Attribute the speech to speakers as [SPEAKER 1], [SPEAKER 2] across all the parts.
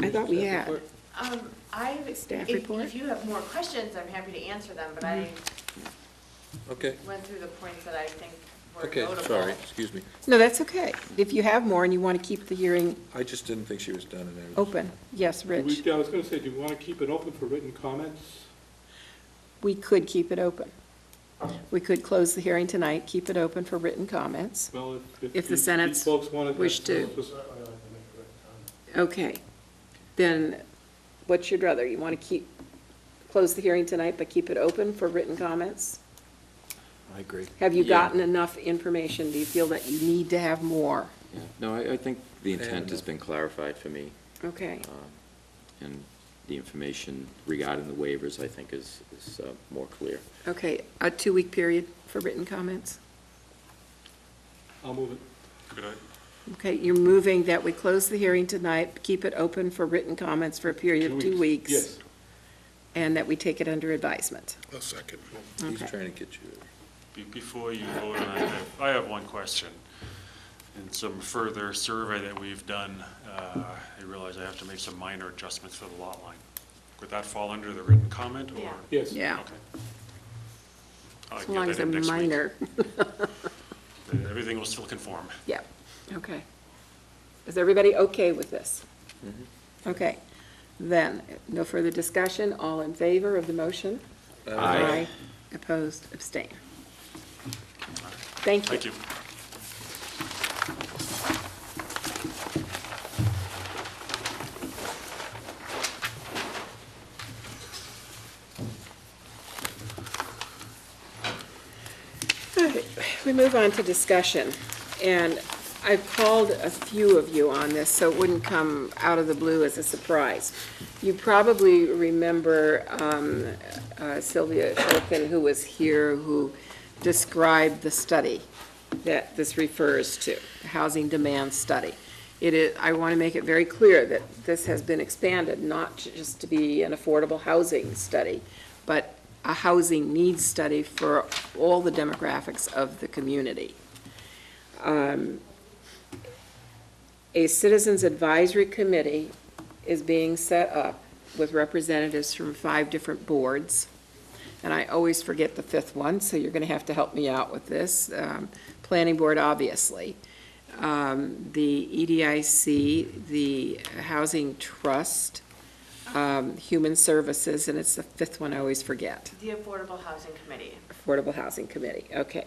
[SPEAKER 1] I thought we had.
[SPEAKER 2] Um, I, if,
[SPEAKER 1] Staff report? Mm-hmm.
[SPEAKER 2] if you have more questions, I'm happy to answer them, but I
[SPEAKER 3] Okay,
[SPEAKER 2] went through the points that I think were
[SPEAKER 3] okay,
[SPEAKER 2] notable.
[SPEAKER 3] sorry, excuse me.
[SPEAKER 1] No, that's okay. If you have more and you want to keep the hearing
[SPEAKER 3] I just didn't think she was done and everything.
[SPEAKER 1] open, yes,
[SPEAKER 4] Do we-
[SPEAKER 1] Rich,
[SPEAKER 4] I was going to say, do we want to keep it open for written comments?
[SPEAKER 1] we could keep it open. We could close the hearing tonight, keep it open for written comments.
[SPEAKER 4] Well, if- if.
[SPEAKER 1] If the
[SPEAKER 4] these- these
[SPEAKER 1] Senate's
[SPEAKER 4] folks wanna-
[SPEAKER 1] wish to.
[SPEAKER 4] Just-
[SPEAKER 1] Okay, then what you'd rather, you want to keep, close the hearing tonight, but keep it open for written comments?
[SPEAKER 5] I agree.
[SPEAKER 1] Have you
[SPEAKER 5] Yeah.
[SPEAKER 1] gotten enough information? Do you feel that you need to have more?
[SPEAKER 5] Yeah. No, I, I think the intent has
[SPEAKER 3] enough.
[SPEAKER 5] been clarified for me,
[SPEAKER 1] Okay,
[SPEAKER 5] um, and the information regarding the waivers, I think, is, is uh, more clear.
[SPEAKER 1] okay, a two-week period for written comments?
[SPEAKER 4] I'll move it.
[SPEAKER 1] Okay, you're moving that we close the hearing tonight, keep it open for written comments for a period of two weeks.
[SPEAKER 4] Yes.
[SPEAKER 1] And that we take it under advisement.
[SPEAKER 6] A second.
[SPEAKER 3] He's
[SPEAKER 1] Okay.
[SPEAKER 3] trying to get you.
[SPEAKER 7] Be- Before you vote on it, I- I have one question. In some further survey that we've done, uh, I realize I have to make some minor adjustments for the lot line. Would that fall under the written comment, or?
[SPEAKER 2] Yeah.
[SPEAKER 4] Yes.
[SPEAKER 1] Yeah,
[SPEAKER 7] Okay. I'll
[SPEAKER 1] as
[SPEAKER 7] get
[SPEAKER 1] long
[SPEAKER 7] that
[SPEAKER 1] as
[SPEAKER 7] in
[SPEAKER 1] they're
[SPEAKER 7] next week.
[SPEAKER 1] minor.
[SPEAKER 7] Everything will still conform.
[SPEAKER 1] Yeah, okay. Is everybody okay with this? Okay, then, no further discussion, all in favor of the motion?
[SPEAKER 5] Aye.
[SPEAKER 1] Opposed, abstain. Thank you.
[SPEAKER 7] Thank you.
[SPEAKER 1] Okay, We move on to discussion, and I've called a few of you on this, so it wouldn't come out of the blue as a surprise. You probably remember um, uh, Sylvia Erkin, who was here, who described the study that this refers to, the housing demand study. It is, I want to make it very clear that this has been expanded, not just to be an affordable housing study, but a housing needs study for all the demographics of the community. Um, A citizens advisory committee is being set up with representatives from five different boards. And I always forget the fifth one, so you're going to have to help me out with this. Um, Planning board, obviously. Um, The EDIC, the Housing Trust, um, Human Services, and it's the fifth one I always forget.
[SPEAKER 2] The Affordable Housing Committee.
[SPEAKER 1] Affordable Housing Committee, okay.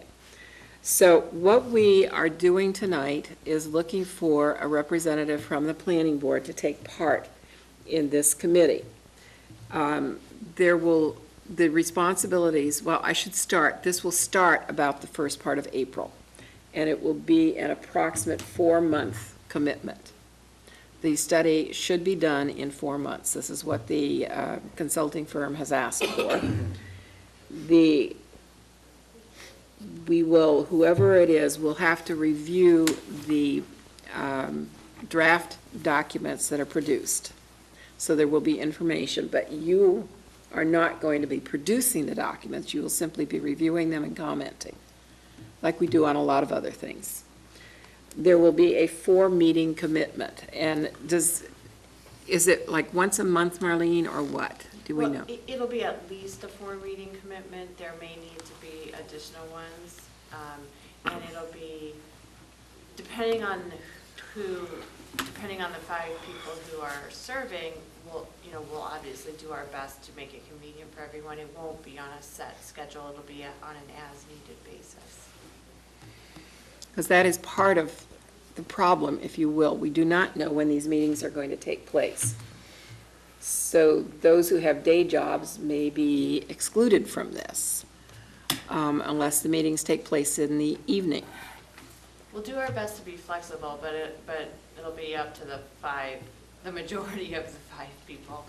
[SPEAKER 1] So what we are doing tonight is looking for a representative from the planning board to take part in this committee. Um, There will, the responsibilities, well, I should start, this will start about the first part of April, and it will be an approximate four-month commitment. The study should be done in four months. This is what the uh, consulting firm has asked for. The we will, whoever it is, will have to review the um, draft documents that are produced. So there will be information, but you are not going to be producing the documents. You will simply be reviewing them and commenting, like we do on a lot of other things. There will be a four-meeting commitment, and does, is it like once a month, Marlene, or what? Do we
[SPEAKER 2] Well,
[SPEAKER 1] know?
[SPEAKER 2] it- It'll be at least a four-reading commitment, there may need to be additional ones, um, and it'll be, depending on who, depending on the five people who are serving, we'll, you know, we'll obviously do our best to make it convenient for everyone, it won't be on a set schedule, it'll be a- on an as-needed basis.
[SPEAKER 1] Because that is part of the problem, if you will. We do not know when these meetings are going to take place. So those who have day jobs may be excluded from this, um, unless the meetings take place in the evening.
[SPEAKER 2] We'll do our best to be flexible, but it, but it'll be up to the five, the majority of the five people.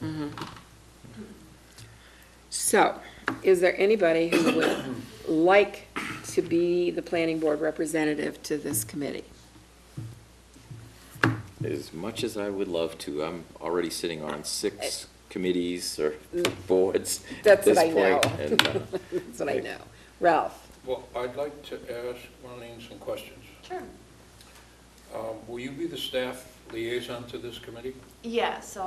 [SPEAKER 1] So, is there anybody who would like to be the planning board representative to this committee?
[SPEAKER 5] As much as I would love to, I'm already sitting on six committees or boards at
[SPEAKER 1] Mm. That's what
[SPEAKER 5] this
[SPEAKER 1] I know.
[SPEAKER 5] point. and, uh,
[SPEAKER 1] That's what I know. Ralph?
[SPEAKER 8] Well, I'd like to ask Marlene some questions.
[SPEAKER 2] Sure.
[SPEAKER 8] Um, Will you be the staff liaison to this committee?
[SPEAKER 2] Yeah, so